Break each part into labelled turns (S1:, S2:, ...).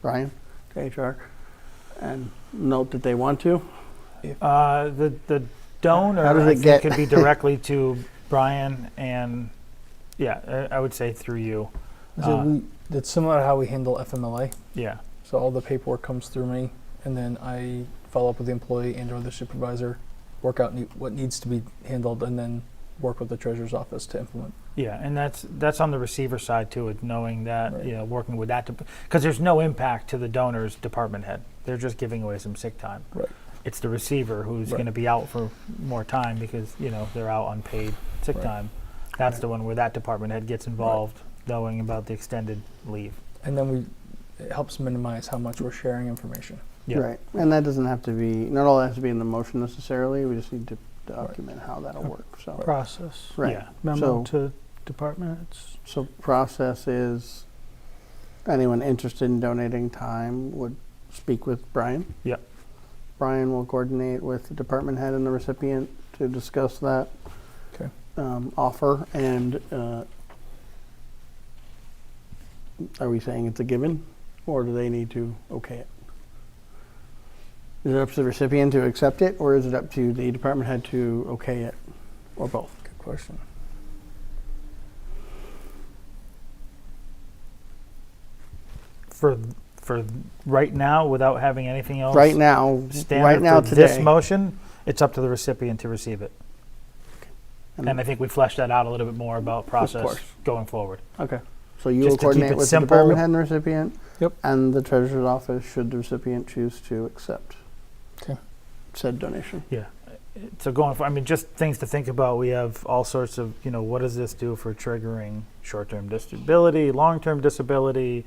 S1: Brian, to HR, and note that they want to.
S2: Uh, the the donor
S1: How does
S2: I
S1: it
S2: think,
S1: get-
S2: could be directly to Brian and yeah, I, I would say through you.
S3: So
S2: Uh,
S3: we, that's similar to how we handle FMLA.
S2: Yeah.
S3: So all the paperwork comes through me, and then I follow up with the employee and/or the supervisor, work out ne- what needs to be handled, and then work with the treasurer's office to implement.
S2: Yeah, and that's that's on the receiver side too, is knowing that
S3: Right.
S2: you know working with that because there's no impact to the donor's department head. They're just giving away some sick time.
S3: Right.
S2: It's the receiver who's
S3: Right.
S2: going to be out for more time because you know they're out on paid sick
S3: Right.
S2: time. That's
S3: Right.
S2: the one where that department head gets involved, knowing about the extended leave.
S3: And then we it helps minimize how much we're sharing information.
S2: Yeah.
S1: Right, and that doesn't have to be, not all that has to be in the motion necessarily, we just need to document how that'll work, so.
S4: process
S1: Right,
S2: Yeah.
S4: memo
S1: So-
S4: to department heads.
S1: so process is, anyone interested in donating time would speak with Brian.
S2: Yep.
S1: Brian will coordinate with the department head and the recipient to discuss that.
S3: Okay.
S1: Um, offer and, uh, are we saying it's a given, or do they need to okay it? Is it up to the recipient to accept it, or is it up to the department head to okay it, or both?
S3: Good question.
S2: For for right now, without having anything else,
S1: Right now,
S2: standard
S1: right now
S2: for
S1: today.
S2: this motion, it's up to the recipient to receive it.
S1: And-
S2: And I think we fleshed that out a little bit more about process
S1: Mm. course.
S2: going forward.
S1: Okay. So you will
S2: Just to keep
S1: coordinate
S2: it
S1: with
S2: simple.
S1: the department head and the recipient?
S3: Yep.
S1: And the treasurer's office should the recipient choose to accept
S3: 'Kay.
S1: said donation.
S2: So going for, I mean, just things to think about. We have all sorts of, you know, what does this do for triggering short-term disability, long-term disability,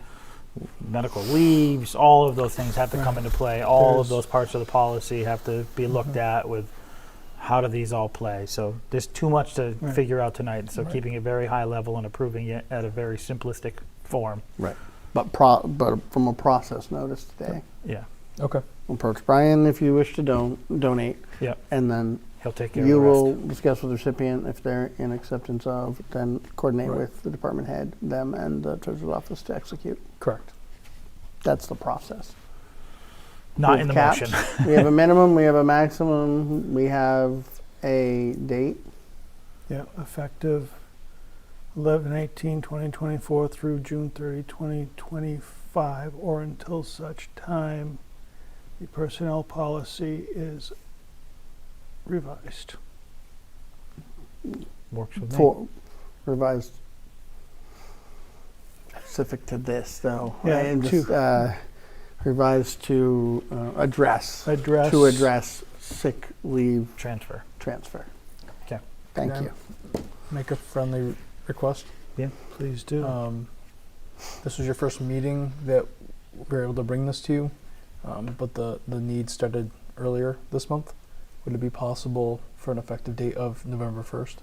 S2: medical leaves? All of those things have to come into play. All of
S3: There's-
S2: those parts of the policy have to be looked
S3: Mhm.
S2: at with how do these all play. So there's too much to
S4: Right.
S2: figure out tonight. So
S3: Right.
S2: keeping it very high level and approving it at a very simplistic form.
S1: But pro, but from a process notice today,
S2: Yeah,
S3: Okay.
S1: approach Brian if you wish to don, donate.
S2: Yep.
S1: And then
S2: he'll take care
S1: you
S2: of the rest.
S1: will discuss with the recipient if they're in acceptance of, then coordinate
S3: Right.
S1: with the department head, them and the treasurer's office to execute.
S3: Correct.
S1: That's the process.
S2: Not
S1: with
S2: in the
S1: caps.
S2: motion.
S1: we have a minimum, we have a maximum, we have a date.
S4: Yeah, effective 11, 18, 20, 24 through June 30, 2025, or until such time the personnel policy is revised.
S2: Works with me.
S1: for revised specific to this though
S4: Yeah,
S1: I am
S4: to-
S1: just, uh, revised to uh, address
S4: Address.
S1: to address sick leave
S2: Transfer.
S1: transfer
S2: 'Kay.
S1: thank
S3: Yeah.
S1: you
S3: Make a friendly re- request.
S4: Please do.
S3: Um, this was your first meeting that we were able to bring this to you, um, but the, the need started earlier this month. Would it be possible for an effective date of November 1st?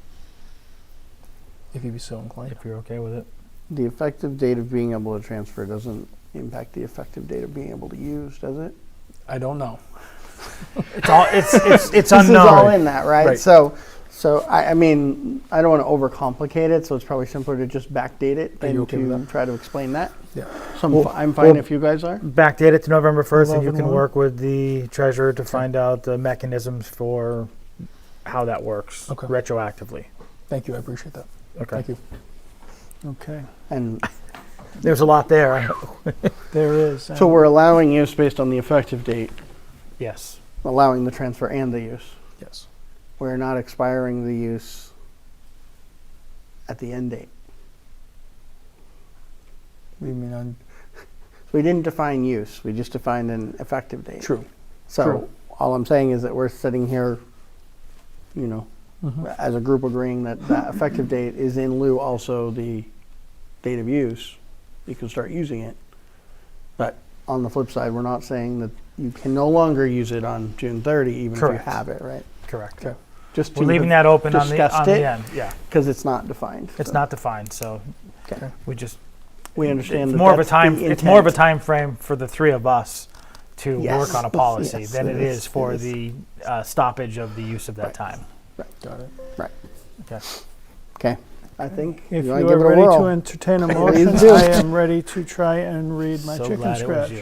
S3: If you'd be so inclined.
S2: If you're okay with it.
S1: the effective date of being able to transfer doesn't impact the effective date of being able to use does it
S3: I don't know.
S2: It's all. It's it's it's
S1: this is all
S2: unknown.
S1: in that right,
S3: Right.
S1: so so I, I mean i don't want to overcomplicate it so it's probably simpler to just backdate it
S3: Are
S1: than
S3: you okay
S1: to
S3: with that?
S1: try to explain that
S3: Yeah.
S1: so i'm,
S2: Well-
S1: fi- I'm fine
S2: well-
S1: if you guys are
S2: Backdate it to November first, and you can
S4: 11-1.
S2: work with the treasurer to find out the mechanisms for how that works
S3: Okay.
S2: retroactively.
S3: Thank you. I appreciate that.
S2: Okay.
S3: Thank you.
S4: Okay,
S1: and
S2: There's a lot there.
S4: there is.
S1: So
S4: and
S1: we're allowing use based on the effective date,
S2: yes.
S1: allowing the transfer and the use.
S3: Yes.
S1: We're not expiring the use at the end date.
S3: What do you mean on?
S1: We didn't define use, we just defined an effective date.
S3: True.
S1: So
S3: true.
S1: all I'm saying is that we're sitting here, you know,
S3: Mm-hmm.
S1: as a group agreeing that that effective date is in lieu also the date of use. You can start using it. But on the flip side, we're not saying that you can no longer use it on June 30, even if you
S2: Correct.
S1: have it, right?
S2: Correct.
S3: Okay.
S1: Just
S2: We're
S1: to
S2: leaving that open on the
S1: discussed
S2: on the
S1: it.
S2: end. Yeah.
S1: because it's not defined.
S2: It's
S1: so
S2: not defined, so
S1: Okay.
S2: we just
S1: We understand
S2: it's
S1: that
S2: more of a
S1: that's the
S2: time. It's more of a
S1: intent.
S2: time frame for the three of us to
S1: Yes.
S2: work on a policy
S1: Yes,
S2: than
S1: it
S2: it
S1: is,
S2: is, for
S1: it is.
S2: the uh, stoppage of the use of that
S1: Right.
S2: time.
S3: Got it.
S1: Okay, I think
S4: If
S1: you
S4: you
S1: want to give it
S4: are
S1: a
S4: ready
S1: whirl.
S4: to entertain a
S1: Please
S4: motion,
S1: do.
S4: I am ready to try and read my
S2: so
S4: chicken
S2: glad it was
S4: scratch.
S2: you.